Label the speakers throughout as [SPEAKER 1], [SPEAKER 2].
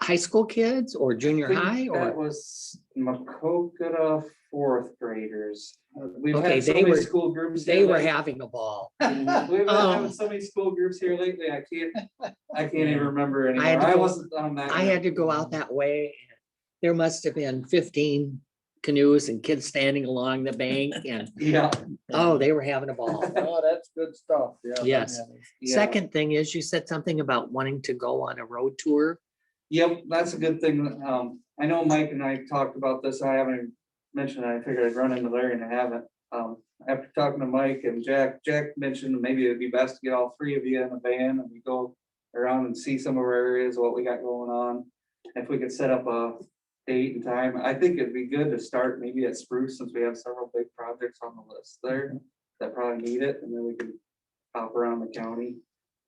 [SPEAKER 1] high school kids or junior
[SPEAKER 2] think
[SPEAKER 1] high
[SPEAKER 2] That
[SPEAKER 1] or?
[SPEAKER 2] was Macokota fourth graders. We've
[SPEAKER 1] Okay,
[SPEAKER 2] had so
[SPEAKER 1] they
[SPEAKER 2] many
[SPEAKER 1] were-
[SPEAKER 2] school groups.
[SPEAKER 1] They
[SPEAKER 2] here
[SPEAKER 1] were
[SPEAKER 2] lately.
[SPEAKER 1] having a ball.
[SPEAKER 2] We've been
[SPEAKER 1] Um,
[SPEAKER 2] having so many school groups here lately, I can't, I can't even remember anymore.
[SPEAKER 1] had to
[SPEAKER 2] I
[SPEAKER 1] go-
[SPEAKER 2] wasn't on that.
[SPEAKER 1] I had to go out that way. and There must have been fifteen canoes and kids standing along the bank and,
[SPEAKER 2] Yeah.
[SPEAKER 1] oh, they were having a ball.
[SPEAKER 3] Oh, that's good stuff, yeah.
[SPEAKER 1] Yes.
[SPEAKER 2] yeah.
[SPEAKER 1] Second thing is you said something about wanting to go on a road tour.
[SPEAKER 2] Yep, that's a good thing. Um, I know Mike and I talked about this. I haven't mentioned, it. I figured I'd run into Larry and I haven't. Um, after talking to Mike and Jack, Jack mentioned maybe it'd be best to get all three of you in a van and we go around and see some of our areas, what we got going on. If we could set up a date and time, I think it'd be good to start maybe at Spruce since we have several big projects on the list there that probably need it, and then we can hop around the county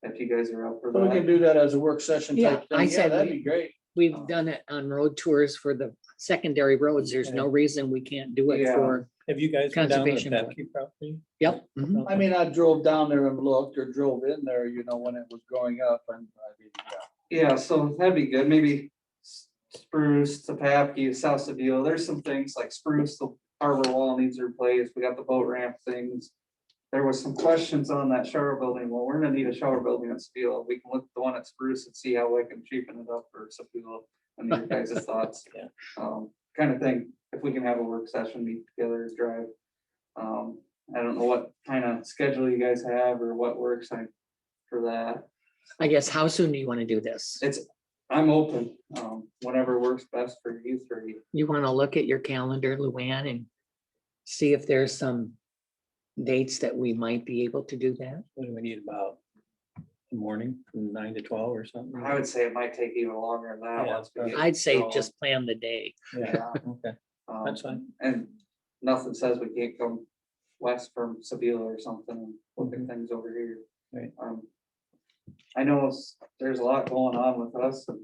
[SPEAKER 2] if you guys are up for
[SPEAKER 3] So we
[SPEAKER 2] that.
[SPEAKER 3] can do that as a work session
[SPEAKER 1] Yeah,
[SPEAKER 3] type thing.
[SPEAKER 1] I
[SPEAKER 3] Yeah,
[SPEAKER 1] said
[SPEAKER 3] that'd
[SPEAKER 1] we-
[SPEAKER 3] be great.
[SPEAKER 2] Oh.
[SPEAKER 1] We've done it on road tours for the secondary roads. There's no reason we can't do it
[SPEAKER 2] Yeah.
[SPEAKER 1] for,
[SPEAKER 4] Have you guys been down to the
[SPEAKER 1] Conservation Board.
[SPEAKER 4] Petke property?
[SPEAKER 1] yep.
[SPEAKER 2] Uh-huh.
[SPEAKER 1] mhm.
[SPEAKER 3] I mean, I drove down there and looked or drove in there, you know, when it was growing up and. I mean, yeah.
[SPEAKER 2] Yeah, so that'd be good, maybe S- Spruce, Sapapke, South Seville, there's some things like Spruce, the harbor wall needs replaced, we got the boat ramp things. There was some questions on that shower building, well, we're gonna need a shower building at Seville, we can look at the one at Spruce and see how we can cheapen it up for Seville. And your guys' thoughts.
[SPEAKER 4] Yeah.
[SPEAKER 2] Um, kind of thing, if we can have a work session, meet together, drive. Um, I don't know what kind of schedule you guys have or what works like for that.
[SPEAKER 1] I guess, how soon do you want to do this?
[SPEAKER 2] It's, I'm open, um, whatever works best for you three.
[SPEAKER 1] You want to look at your calendar, Luann, and see if there's some dates that we might be able to do that?
[SPEAKER 4] What do we need about? the Morning, from nine to twelve or something?
[SPEAKER 2] I would say it might take even longer than that.
[SPEAKER 4] Yeah,
[SPEAKER 2] once we get
[SPEAKER 1] I'd say
[SPEAKER 2] going.
[SPEAKER 1] just plan the day.
[SPEAKER 4] Yeah,
[SPEAKER 2] Yeah,
[SPEAKER 4] okay,
[SPEAKER 2] um,
[SPEAKER 4] that's fine.
[SPEAKER 2] And nothing says we can't come west from Seville or something, and look at
[SPEAKER 4] Mhm.
[SPEAKER 2] things over here.
[SPEAKER 4] Right.
[SPEAKER 2] Um, I know s- there's a lot going on with us, and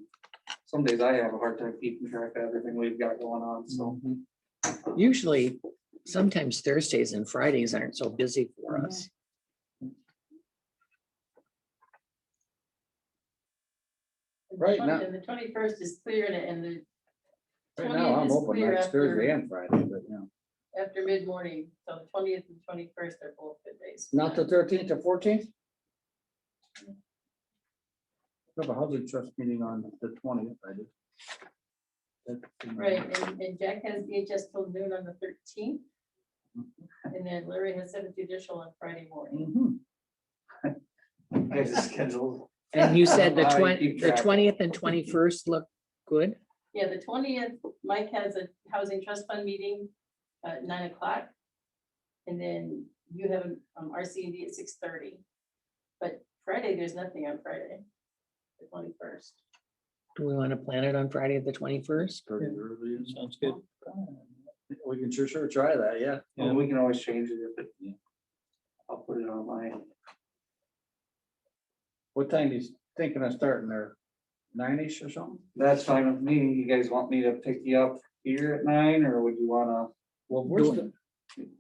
[SPEAKER 2] some days I have a hard time keeping track of everything we've got going on, so.
[SPEAKER 3] mm,
[SPEAKER 4] Mhm.
[SPEAKER 1] Usually, sometimes Thursdays and Fridays aren't so busy for us.
[SPEAKER 3] Right now-
[SPEAKER 5] And the twenty-first is clear and- and the.
[SPEAKER 3] Right
[SPEAKER 5] 20th
[SPEAKER 3] now, I'm
[SPEAKER 5] is
[SPEAKER 3] open,
[SPEAKER 5] clear
[SPEAKER 3] that's Thursday
[SPEAKER 5] after-
[SPEAKER 3] and Friday, but yeah.
[SPEAKER 5] After mid-morning, so the twentieth and twenty-first are both good days.
[SPEAKER 3] Not the thirteenth or fourteenth? We have a housing trust meeting on the twentieth, I did. That's-
[SPEAKER 5] Right, and, and Jack has DHS till noon on the thirteenth. And then Larry has seventh judicial on Friday morning.
[SPEAKER 3] Mhm.
[SPEAKER 4] Mm-hmm.
[SPEAKER 2] Guys' schedule.
[SPEAKER 1] And you said the
[SPEAKER 2] I
[SPEAKER 1] twenty,
[SPEAKER 2] keep
[SPEAKER 1] the
[SPEAKER 2] track.
[SPEAKER 1] twentieth and twenty-first look good?
[SPEAKER 5] Yeah, the twentieth, Mike has a housing trust fund meeting at nine o'clock. And then you have an um, RCD at six thirty. But Friday, there's nothing on Friday, the twenty-first.
[SPEAKER 1] Do we want to plan it on Friday, the twenty-first?
[SPEAKER 3] Pretty early and-
[SPEAKER 4] Sounds good.
[SPEAKER 3] We can sure, sure try that, yeah.
[SPEAKER 2] Well, we can always change it if it. I'll put it on my
[SPEAKER 3] What time he's thinking of starting there? Nine-ish or something?
[SPEAKER 2] That's fine with me. You guys want me to pick you up here at nine, or would you wanna,
[SPEAKER 3] Well,
[SPEAKER 1] we're still-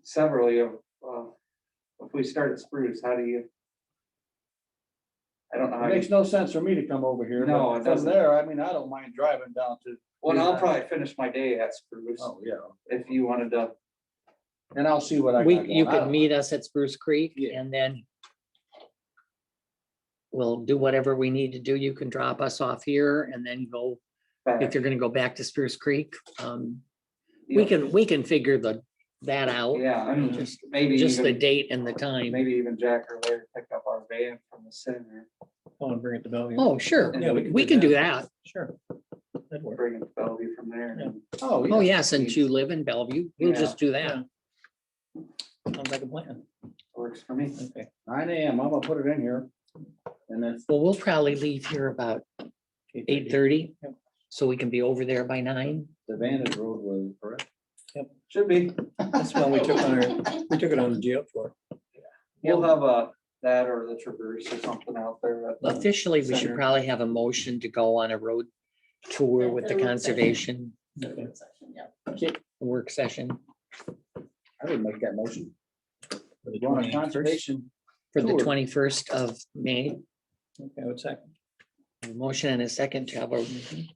[SPEAKER 2] several of you, uh, if we start at Spruce, how do you? I don't know. how
[SPEAKER 3] It
[SPEAKER 2] you-
[SPEAKER 3] makes no sense for me to come over here. but
[SPEAKER 2] No, it
[SPEAKER 3] From
[SPEAKER 2] doesn't.
[SPEAKER 3] there, I mean, I don't mind driving down to,
[SPEAKER 2] Well, I'll probably finish my day at Spruce
[SPEAKER 3] oh, yeah,
[SPEAKER 2] if you wanted to.
[SPEAKER 3] and I'll see what I.
[SPEAKER 1] We, you
[SPEAKER 3] got going. I
[SPEAKER 1] could
[SPEAKER 3] don't-
[SPEAKER 1] meet us at Spruce Creek
[SPEAKER 3] Yeah.
[SPEAKER 1] and then we'll do whatever we need to do. You can drop us off here and then go, if
[SPEAKER 2] back.
[SPEAKER 1] you're gonna go back to Spruce Creek. um, We
[SPEAKER 2] Yeah.
[SPEAKER 1] can, we can figure the, that out,
[SPEAKER 2] Yeah, I mean, just maybe
[SPEAKER 1] just the
[SPEAKER 2] even,
[SPEAKER 1] date and the time.
[SPEAKER 2] maybe even Jack or Larry pick up our van from the center,
[SPEAKER 4] Oh, and bring it to Bellevue.
[SPEAKER 1] Oh, sure,
[SPEAKER 4] Yeah,
[SPEAKER 1] we can do that.
[SPEAKER 4] Sure. That'd work.
[SPEAKER 2] bring it to Bellevue from there. and-
[SPEAKER 3] Oh,
[SPEAKER 1] Oh,
[SPEAKER 3] yeah.
[SPEAKER 1] yeah, since you live in Bellevue, we'll
[SPEAKER 2] Yeah.
[SPEAKER 1] just do that.
[SPEAKER 4] Sounds like a plan.
[SPEAKER 2] Works for me.
[SPEAKER 4] Okay.
[SPEAKER 3] Nine AM, I'm gonna put it in here. And that's,
[SPEAKER 1] Well, we'll probably leave here about eight thirty,
[SPEAKER 4] Yep.
[SPEAKER 1] so we can be over there by nine.
[SPEAKER 3] the Vantage Road was correct.
[SPEAKER 2] Should be.
[SPEAKER 4] That's when we took on our, we took it on the jail floor.
[SPEAKER 2] We'll have a, that or the Traverse or something out there. at the-
[SPEAKER 1] Officially, we should
[SPEAKER 2] Center.
[SPEAKER 1] probably have a motion to go on a road tour with the
[SPEAKER 5] Yeah, road session.
[SPEAKER 1] conservation
[SPEAKER 4] Okay.
[SPEAKER 5] Session, yeah.
[SPEAKER 1] work session
[SPEAKER 3] I would make that motion.
[SPEAKER 4] For the
[SPEAKER 3] You want a
[SPEAKER 4] 21st.
[SPEAKER 3] conservation?
[SPEAKER 1] for the
[SPEAKER 3] Sure.
[SPEAKER 1] twenty-first of May.
[SPEAKER 4] Okay, what's that?
[SPEAKER 1] A Motion and a second to have a